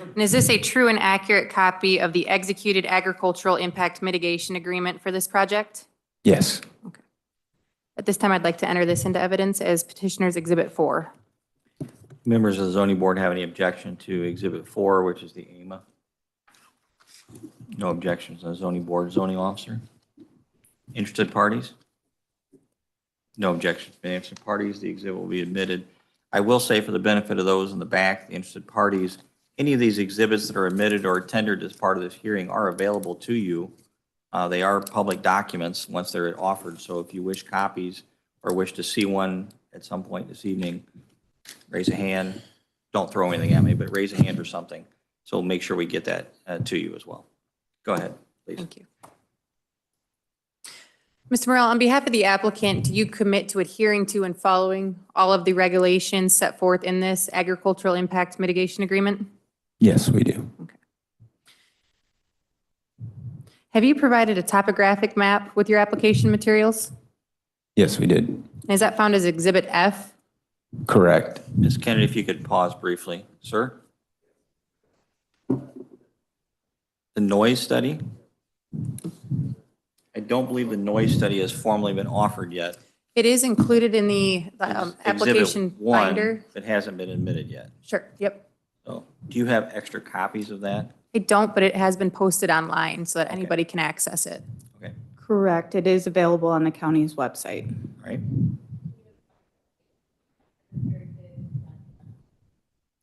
And is this a true and accurate copy of the executed agricultural impact mitigation agreement for this project? Yes. At this time, I'd like to enter this into evidence as petitioner's exhibit four. Members of the zoning board have any objection to Exhibit 4, which is the AMA? No objections, the zoning board, zoning officer. Interested parties? No objections, from interested parties, the exhibit will be admitted. I will say for the benefit of those in the back, the interested parties, any of these exhibits that are admitted or tendered as part of this hearing are available to you. Uh, They are public documents once they're offered, so if you wish copies or wish to see one at some point this evening, raise a hand. Don't throw anything at me, but raise a hand or something. So we'll make sure we get that uh, to you as well. Go ahead, please. Thank you. Mr. Morel, on behalf of the applicant, do you commit to adhering to and following all of the regulations set forth in this agricultural impact mitigation agreement? Yes, we do. Have you provided a topographic map with your application materials? Yes, we did. And Is that found as Exhibit F? Correct. Ms. Kennedy, if you could pause briefly, sir? The noise study? I don't believe the noise study has formally been offered yet. It is included in the um, It's Exhibit application one binder. That hasn't been admitted yet. Sure, yep. So do you have extra copies of that? I don't, but it has been posted online so that anybody can access it. Okay, Correct. It is available on the county's website. all right.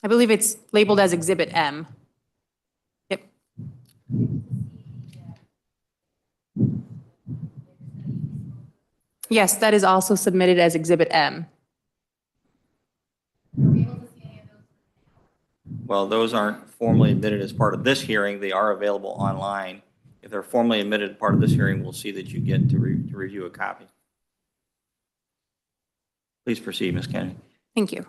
I believe it's labeled as Exhibit M. Yep. Yes, that is also submitted as Exhibit M. Well, those aren't formally admitted as part of this hearing. They are available online. If they're formally admitted as part of this hearing, we'll see that you get to re- to review a copy. Please proceed, Ms. Kennedy. Thank you.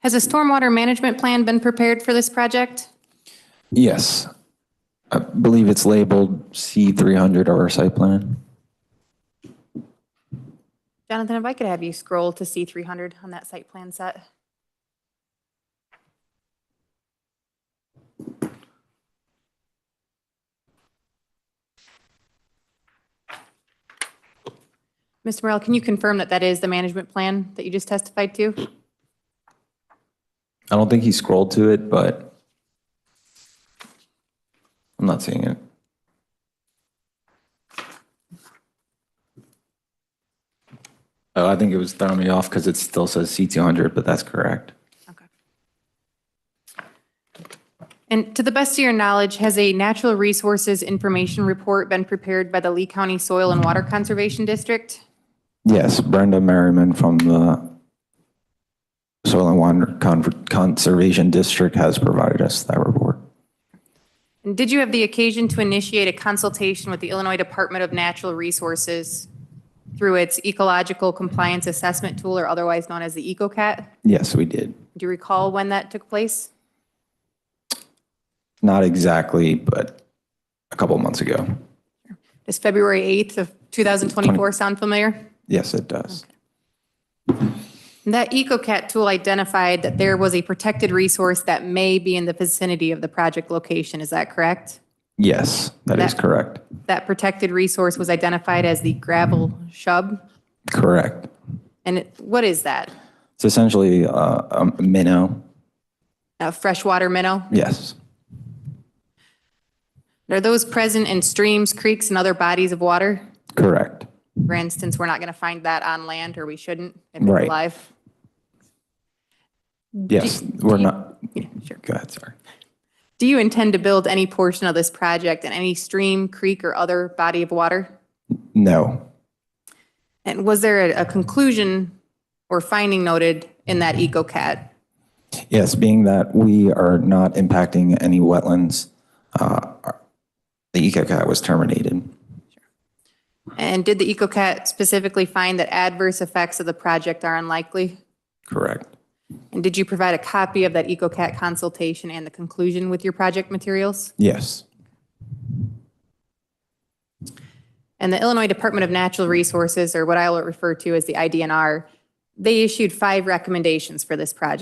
Has a stormwater management plan been prepared for this project? Yes. I believe it's labeled C300 of our site plan. Jonathan, if I could have you scroll to C300 on that site plan set. Mr. Morel, can you confirm that that is the management plan that you just testified to? I don't think he scrolled to it, but I'm not seeing it. Oh, I think it was throwing me off because it still says C200, but that's correct. Okay. And to the best of your knowledge, has a natural resources information report been prepared by the Lee County Soil and Water Conservation District? Yes, Brenda Merriman from the Soil and Water Con- Conservation District has provided us that report. And did you have the occasion to initiate a consultation with the Illinois Department of Natural Resources through its Ecological Compliance Assessment Tool, or otherwise known as the EcoCat? Yes, we did. Do you recall when that took place? Not exactly, but a couple months ago. Does February 8th of 2024 sound familiar? Yes, it does. That EcoCat tool identified that there was a protected resource that may be in the vicinity of the project location, is that correct? Yes, that is That- correct. That protected resource was identified as the gravel shub, Correct. and it- what is that? It's essentially uh, a minnow. A freshwater minnow? Yes, Are those present in streams, creeks, and other bodies of water? correct. For instance, we're not going to find that on land, or we shouldn't, if it's Right. alive. Yes, we're not. Yeah, sure. Go ahead, sorry. Do you intend to build any portion of this project in any stream, creek, or other body of water? No, And was there a a conclusion or finding noted in that EcoCat? yes, being that we are not impacting any wetlands, uh, the EcoCat was terminated. And did the EcoCat specifically find that adverse effects of the project are unlikely? Correct. And did you provide a copy of that EcoCat consultation and the conclusion with your project materials? Yes, And the Illinois Department of Natural Resources, or what I will refer to as the IDNR, they issued five recommendations for this project.